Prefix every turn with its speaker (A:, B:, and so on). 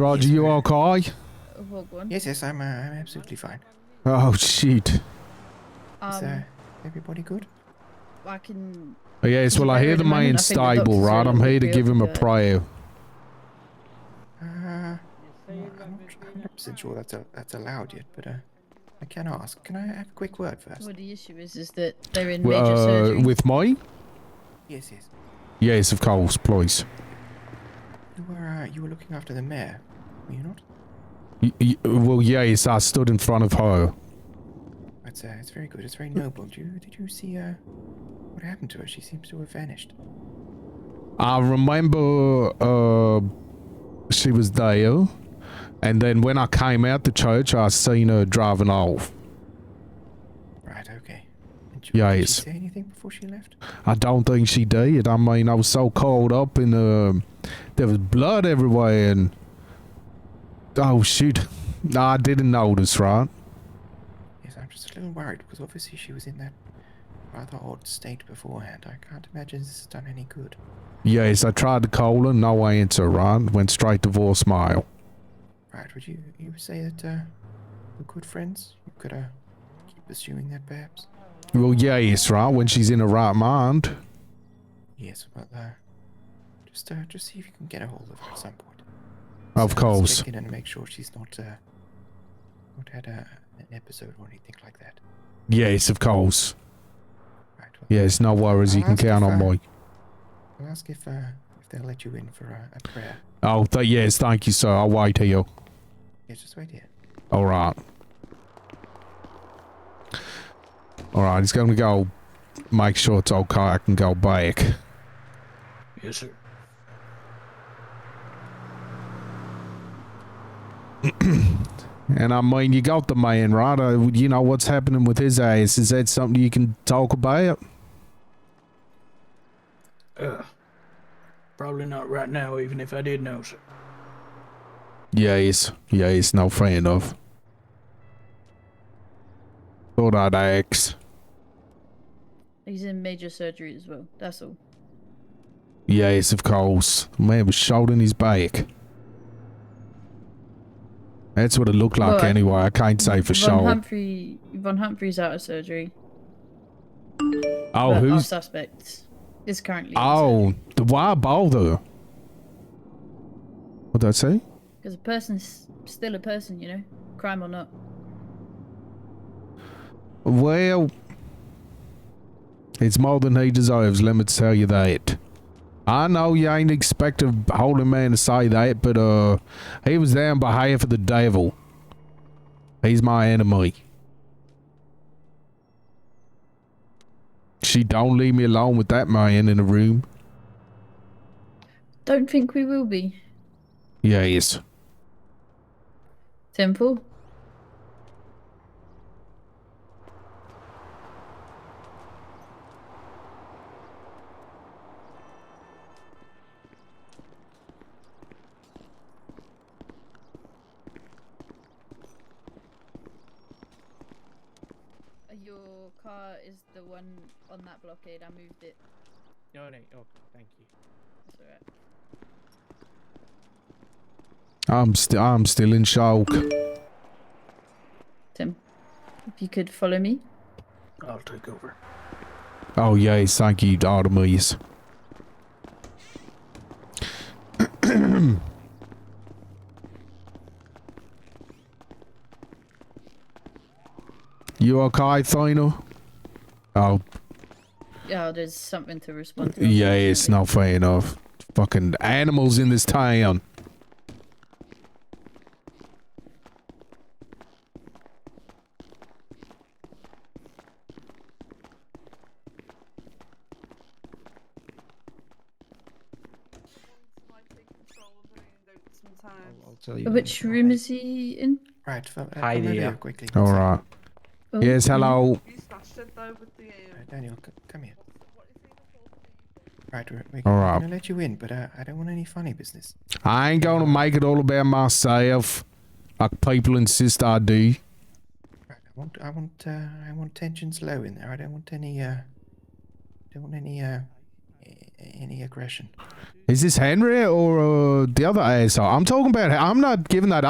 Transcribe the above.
A: Roger,
B: Yes,
A: you
B: ma'am.
A: okay?
C: Hog one.
B: Yes, yes, I'm, uh, I'm absolutely fine.
A: Oh shoot.
B: Is
C: Um,
B: uh, everybody good?
C: I can.
A: Yes, Oh, well I
C: I
A: hear
C: really
A: the
C: mind
A: man's
C: nothing but
A: stable,
C: doctors
A: right?
C: really
A: I'm here to
C: feel
A: give him a
C: good.
A: prayer.
B: Uh, I'm not 100 percent sure that's a, that's allowed yet, but uh, I can ask. Can I have a quick word first?
C: Well, the issue is, is that they're in major
A: Uh,
C: surgery.
A: with me?
B: Yes, yes.
A: Yes, of course, please.
B: You were uh, you were looking after the mayor, were you not?
A: Y- y- well, yes, I stood in front of her.
B: That's uh, it's very good. It's very noble. Did you did you see uh, what happened to her? She seems to have vanished.
A: I remember uh, she was there, and then when I came out the church, I seen her driving off.
B: Right. Okay. And she, Did
A: Yes.
B: she say anything before she left?
A: I don't think she did. I mean, I was so caught up in the. There was blood everywhere, and. Oh, shoot. I didn't notice, right?
B: Yes, I'm just a little worried because obviously she was in that rather odd state beforehand. I can't imagine this has done any good.
A: Yes, I tried to call her, no answer, right? Went straight to voicemail.
B: Right, would you you would say that uh, we're good friends? You could uh, keep pursuing that, perhaps.
A: Well, yes, right? When she's in her right mind.
B: Yes, well, uh, just uh, just see if you can get a hold of her at some point.
A: Of
B: So, let's
A: course.
B: check in and make sure she's not uh, not had a, an episode or anything like that.
A: Yes, of course.
B: Right. Well,
A: Yes, no worries. You
B: I'll
A: can
B: ask if
A: count on
B: I-
A: me.
B: I'll ask if uh, if they'll let you in for uh, a prayer.
A: Oh, th- yes, thank you, sir. I'll wait here.
B: Yeah, just wait here.
A: All right. All right, he's going to go make sure it's okay. I can go back.
D: Yes, sir.
A: And I mean, you got the man, right? Uh, you know what's happening with his ass. Is that something you can talk about?
D: Uh, probably not right now, even if I did know, sir.
A: Yes, yes, no fan of. Thought I'd ask.
C: He's in major surgery as well. That's all.
A: Yes, of course. Man was shot in his back. That's what it looked like
C: Well, I-
A: anyway. I can't say for
C: Von
A: sure.
C: Humphrey. Von Humphrey's out of surgery.
A: oh,
C: but Our
A: who's.
C: suspect is currently.
A: Oh, the why bother? What'd I say?
C: Because a person's still a person, you know, crime or not.
A: Well, it's more than he deserves, let me tell you that. I know you ain't expect a holy man to say that, but uh, he was there on behalf of the devil. He's my enemy. She don't leave me alone with that man in the room.
C: Don't think we will be.
A: Yes.
C: Temple. Your car is the one on that blockade. I moved it.
E: No, no. Oh, thank you.
C: That's alright.
A: I'm still I'm still in shock.
C: Tim, if you could follow me.
D: I'll take over.
A: Oh yes, thank you, Artemis. you okay, Thina? Oh
C: Yeah, there's something to respond to.
A: yeah, it's
C: unfortunately.
A: not fair enough. Fucking animals in this town.
F: I'll,
G: sometimes.
F: I'll tell you.
C: Which room is he in?
B: Right. Well, uh,
E: Hi
B: Valeria,
E: there.
B: Quickly.
A: All right.
C: Oh,
A: Yes, hello.
G: You smashed it though with the um,
B: Uh, Daniel, c- come here.
G: what is it called?
B: Right. We're, we're
A: All right.
B: gonna let you in, but uh, I don't want any funny business.
A: I ain't gonna make it all about myself. Like people insist I do.
B: Right, I want, I want, uh, I want tensions low in there. I don't want any, uh, don't want any, uh, a- any aggression.
A: Is this Henry or uh, the other asshole? I'm talking about. I'm not giving that up.